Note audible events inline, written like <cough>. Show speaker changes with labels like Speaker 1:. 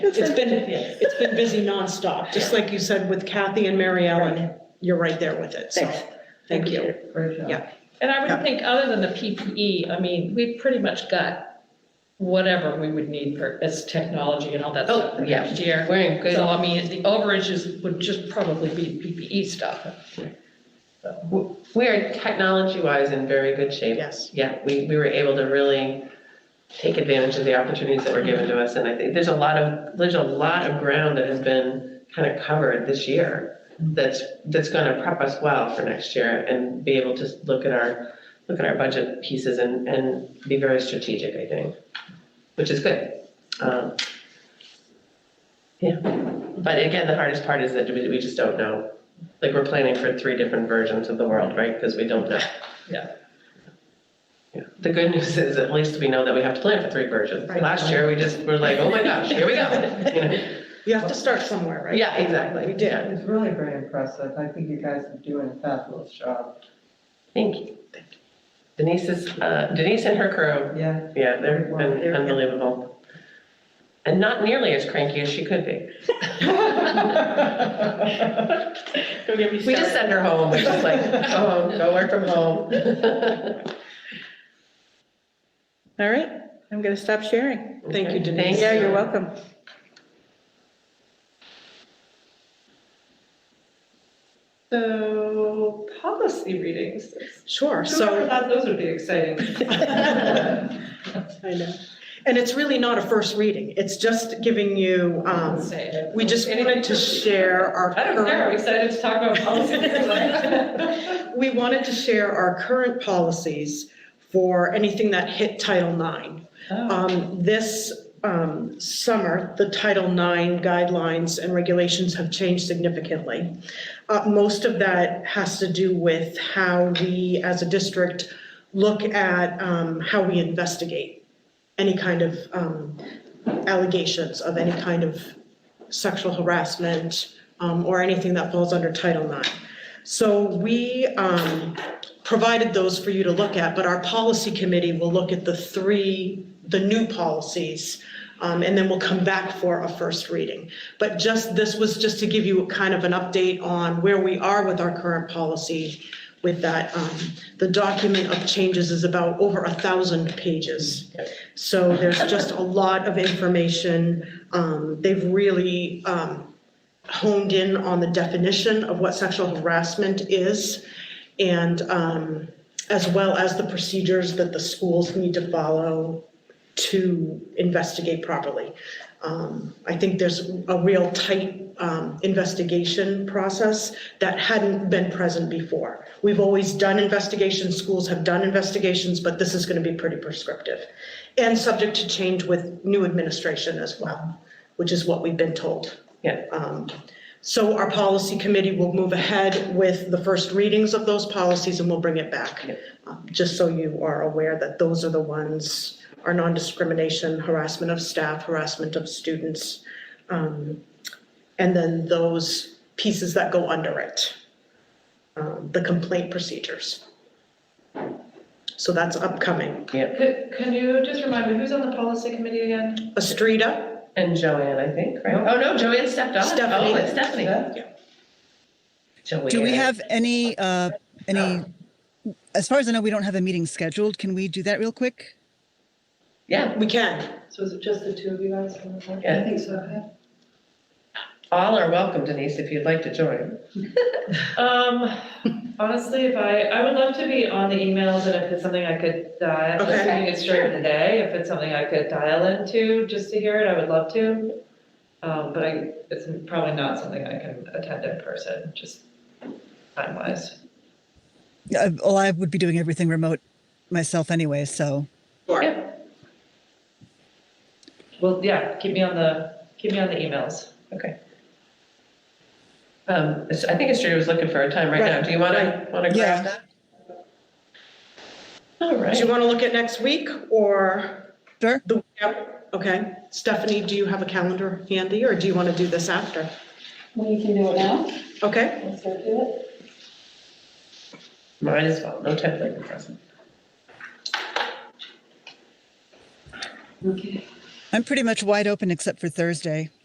Speaker 1: It's been, it's been busy nonstop, just like you said with Kathy and Mary Ellen, you're right there with it, so,
Speaker 2: Thanks.
Speaker 1: thank you.
Speaker 3: And I
Speaker 1: Yeah.
Speaker 3: would think, other than the PPE, I mean, we pretty much got whatever we would need for, as technology and all that stuff for
Speaker 2: Oh, yeah.
Speaker 3: next year.
Speaker 2: We're in good,
Speaker 3: So I mean, the overages would just probably be PPE stuff.
Speaker 2: we're technology-wise in very good shape.
Speaker 1: Yes.
Speaker 2: Yeah, we, we were able to really take advantage of the opportunities that were given to us. And I think there's a lot of, there's a lot of ground that has been kind of covered this year that's, that's going to prep us well for next year and be able to look at our, look at our budget pieces and, and be very strategic, I think, which is good. Um, Yeah, but again, the hardest part is that we, we just don't know. Like, we're planning for three different versions of the world, right? Because
Speaker 1: <laughs>
Speaker 2: we don't know. Yeah. The good news is at least we know that we have to plan for three versions.
Speaker 1: Right.
Speaker 2: Last year, we just were like, oh my gosh, here we go. You know?
Speaker 1: You have to start somewhere, <laughs> right?
Speaker 2: Yeah, exactly.
Speaker 1: We did.
Speaker 4: It's really very impressive. I think you guys are doing a fabulous job.
Speaker 2: Thank you. Denise is, uh, Denise and her crew,
Speaker 4: Yeah.
Speaker 2: <laughs> yeah, they're
Speaker 4: Wow,
Speaker 2: un-
Speaker 4: they're-
Speaker 2: unbelievable. And not nearly as cranky as she could be. We just send her home, we're just like, go home, go work from home.
Speaker 5: All right, I'm going to stop sharing.
Speaker 1: Thank you, Denise.
Speaker 2: Thank
Speaker 5: Yeah, you're
Speaker 2: you.
Speaker 5: welcome.
Speaker 4: So policy readings.
Speaker 1: Sure,
Speaker 4: Whoever
Speaker 1: so,
Speaker 4: thought those would be
Speaker 3: <laughs>
Speaker 4: exciting?
Speaker 1: I know. And it's really not a first reading, it's just giving you, um,
Speaker 3: Say it.
Speaker 1: we just wanted to share our
Speaker 3: I don't care, I'm
Speaker 1: current,
Speaker 3: excited to talk about <laughs>
Speaker 4: <laughs>
Speaker 3: policy.
Speaker 1: we wanted to share our current policies for anything that hit Title IX.
Speaker 3: Oh.
Speaker 1: Um, This um, summer, the Title IX guidelines and regulations have changed significantly. Uh, Most of that has to do with how we, as a district, look at um, how we investigate any kind of um, allegations of any kind of sexual harassment um, or anything that falls under Title IX. So we um, provided those for you to look at, but our policy committee will look at the three, the new policies, um, and then we'll come back for a first reading. But just, this was just to give you kind of an update on where we are with our current policy with that. um, The document of changes is about over a thousand pages. So there's just a lot of information. Um, They've really um, honed in on the definition of what sexual harassment is and um, as well as the procedures that the schools need to follow to investigate properly. Um, I think there's a real tight um, investigation process that hadn't been present before. We've always done investigations, schools have done investigations, but this is going to be pretty prescriptive and subject to change with new administration as well, which is what we've been told.
Speaker 2: Yeah.
Speaker 1: Um, So our policy committee will move ahead with the first readings of those policies and we'll bring it back.
Speaker 2: Yep.
Speaker 1: Um, Just so you are aware that those are the ones, our non-discrimination, harassment of staff, harassment of students. um, And then those pieces that go under it. um, The complaint procedures. So that's upcoming.
Speaker 4: Could, can you just remind me, who's on the policy committee again?
Speaker 1: Estrida,
Speaker 2: And Joanne, I think, right? Oh, no, Joanne stepped off.
Speaker 1: Stephanie.
Speaker 2: Oh, it's Stephanie.
Speaker 1: Yeah.
Speaker 2: Joanne.
Speaker 6: Do we have any, uh, any, as far as I know, we don't have a meeting scheduled. Can we do that real quick?
Speaker 2: Yeah,
Speaker 1: We can.
Speaker 4: So is it just the two of you guys? on the board?
Speaker 2: Yeah.
Speaker 4: I think so.
Speaker 2: all are welcome, Denise, if you'd like to join.
Speaker 7: Um, honestly, if I, I would love to be on the emails and if it's something I could dial,
Speaker 1: Okay.
Speaker 7: assuming it's during the day, if it's something I could dial into just to hear it, I would love to. Um, but I, it's probably not something I can attend in person, just time wise.
Speaker 6: Uh, Well, I would be doing everything remote myself anyway, so.
Speaker 7: Well, yeah, keep me on the, keep me on the emails.
Speaker 2: Um, it's- I think Estrella was looking for a time right now.
Speaker 1: Right,
Speaker 2: Do you want to,
Speaker 1: right.
Speaker 2: want to
Speaker 6: Yeah.
Speaker 2: grab that? All
Speaker 1: Do you
Speaker 2: right.
Speaker 1: want to look at next week or?
Speaker 6: Sure.
Speaker 1: The, yep, okay. Stephanie, do you have a calendar handy or do you want to do this after?
Speaker 8: We can do it now,
Speaker 1: Okay,
Speaker 8: let's go do it.
Speaker 2: Might as well, no time like the present.
Speaker 8: Okay.
Speaker 6: I'm pretty much wide open except for Thursday.